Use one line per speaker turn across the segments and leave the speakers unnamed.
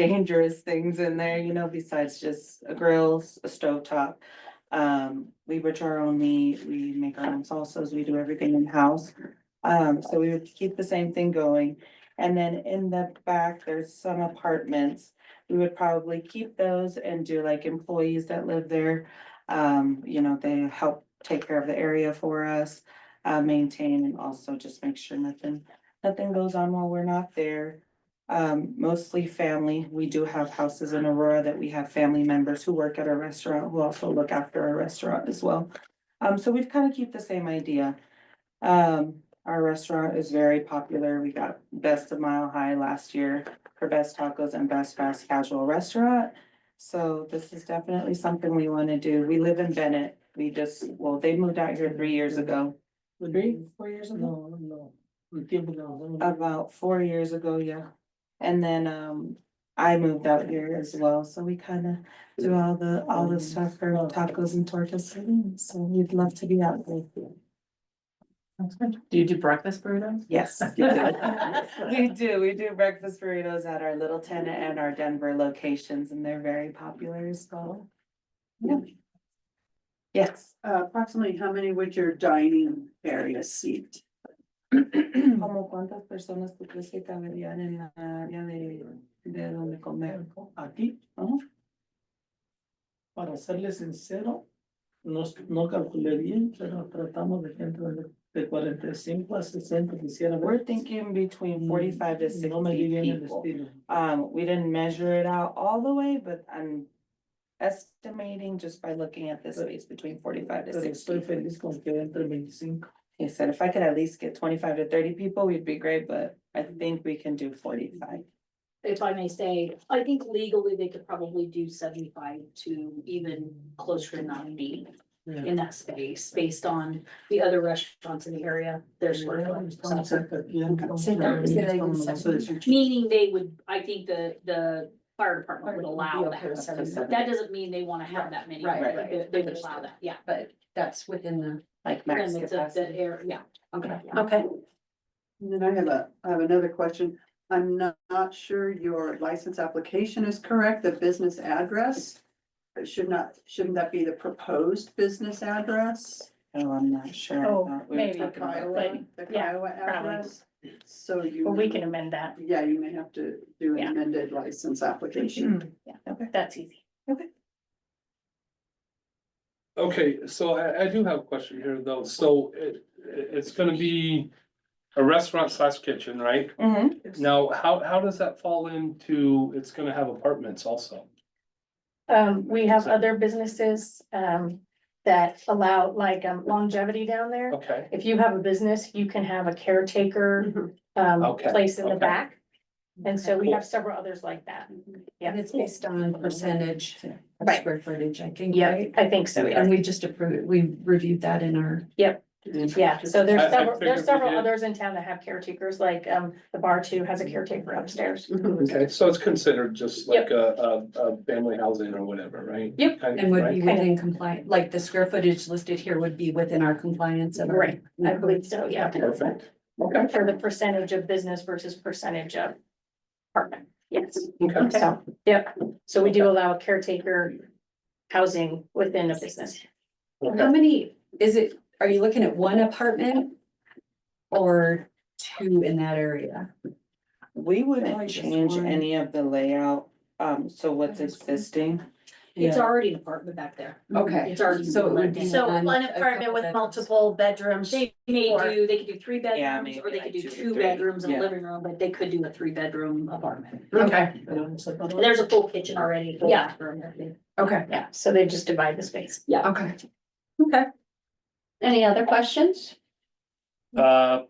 dangerous things in there, you know, besides just a grills, a stove top. Um, we butcher our own meat, we make our own salsas, we do everything in-house. Um, so we would keep the same thing going. And then in the back, there's some apartments. We would probably keep those and do like employees that live there. Um, you know, they help take care of the area for us, uh, maintain and also just make sure nothing, nothing goes on while we're not there. Um, mostly family. We do have houses in Aurora that we have family members who work at our restaurant who also look after our restaurant as well. Um, so we'd kind of keep the same idea. Um, our restaurant is very popular. We got Best of Mile High last year for Best Tacos and Best Fast Casual Restaurant. So this is definitely something we want to do. We live in Bennett. We just, well, they moved out here three years ago. Three, four years ago?
No, no. We give it all.
About four years ago, yeah. And then, um, I moved out here as well, so we kinda do all the, all the stuff for tacos and tortas, so we'd love to be out there.
Do you do breakfast burritos?
Yes. We do, we do breakfast burritos at our Little Ten and our Denver locations, and they're very popular as well. Yeah. Yes,
Uh, Approximately how many would your dining area seat?
como cuántas personas tú crees que caberían en la área de, de donde comer?
Aquí,
Ajá.
Uh-huh. para serle sincero, no, no calculé bien, pero tratamos de que entre de- de cuarenta y cinco a sesenta quisiera
We're
ver. Mm,
thinking
Mm.
between forty-five to
No me di
sixty
bien el
people.
estilo.
Um, we didn't measure it out all the way, but I'm estimating just by looking at this space between forty-five to
Pero estoy
sixty.
feliz con que entre veinticinco.
He said if I could at least get twenty-five to thirty people, we'd be great, but I think we can do forty-five.
if I may say, I think legally they could probably do seventy-five to even closer to ninety
Yeah.
in that space, based on the other restaurants in the area, their square footage. So,
cerca aquí, entonces,
Sí, claro, sí,
estamos
hay un
en la
sector.
seis.
Meaning they would, I think the, the fire department would allow
Would be okay
that.
with
So
seventy.
That doesn't mean they wanna have that many,
Right,
but
right.
they- they would allow that, yeah.
But that's within the.
Like max
Limits of the
capacity.
area, yeah, okay.
Okay.
And then I have a, I have another question. I'm not, not sure your license application is correct, the business address. It Should not, shouldn't that be the proposed business address?
Oh, I'm not sure. I
Oh,
thought we were
maybe.
The
talking about that.
Kiowa, the
yeah,
Kiowa
probably.
address? So you.
But we can amend that.
Yeah, you may have to do an
Yeah.
amended license application.
Hmm,
"Mm,
That's easy.
Okay, so I, I do have a question here though, so it, it- it's gonna be a restaurant slash kitchen, right?
Mm-hmm.
Mhm.
Now, how, how does that fall into, it's gonna have apartments also?
Um, we have other businesses, um, that allow like um, longevity down there.
Okay,
If you have a business, you can have a caretaker, um,
Mm-hmm. Okay,
place in the
okay.
back. And so we
Cool.
have several others like that. Yeah.
And it's based on percentage of
Right.
square footage, I think,
Yeah,
right?
I think so.
And we just approved, we reviewed that in our.
Yeah, so there's
I- I
several,
figured
there's
we
several
did.
others in town that have caretakers, like, um, the bar too has a caretaker upstairs.
okay, so it's considered just like a, a, a family housing or whatever, right?
Yep.
Kind of,
And would
right?
be within compliant, like the square footage listed here would be within our compliance of. our-
Right,
Mm-hmm.
I believe so, yeah.
Perfect, okay,
For the percentage of business versus percentage of apartment, yes.
okay,
So, yep, so we do allow caretaker housing within a business.
How
okay.
many, is it, are you looking at one apartment? Or two in that area?
We
Probably
wouldn't
just
change
one.
any of the layout, um, so what's existing.
It's
Yeah.
already an apartment back there.
Okay.
It's already.
So it would be
So
one-
one
a
apartment
couple
with
bedrooms.
multiple bedrooms.
They may
Or-
do, they could do three
Yeah,
bedrooms,
maybe
or they
like
could do
two or
two
three,
bedrooms and
yeah.
a living room, but they could do a three bedroom apartment.
Okay,
Pero en sector-
And There's a full kitchen already. full
Yeah.
bathroom, everything.
okay,
Yeah, so they just divide the space.
okay.
Any other questions?
Uh,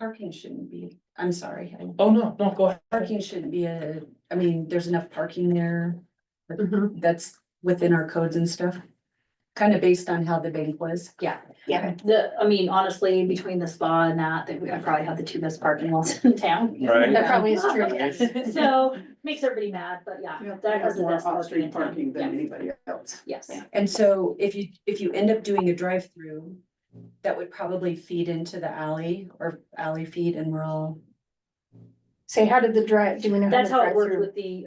Parking shouldn't be, I'm sorry, I-
oh, no, no, go ahead.
parking shouldn't be a, I mean, there's enough parking there. That's within our codes and stuff, kind of based on how the bank was.
Yeah.
Yeah.
The, I mean, honestly, between the spa and that, that we I probably have the two best parking lots in town.
Right.
That probably is true, yes.
So makes everybody mad, but yeah,
You have
that has the
more
best parking in
off-street
town.
parking than
Yeah.
anybody else.
Yes.
And so if you, if you end up doing a drive-through, that would probably feed into the alley or alley feed and we're all
Say, how did the drive, do we know?
That's
the
how it worked
drive-through-
with the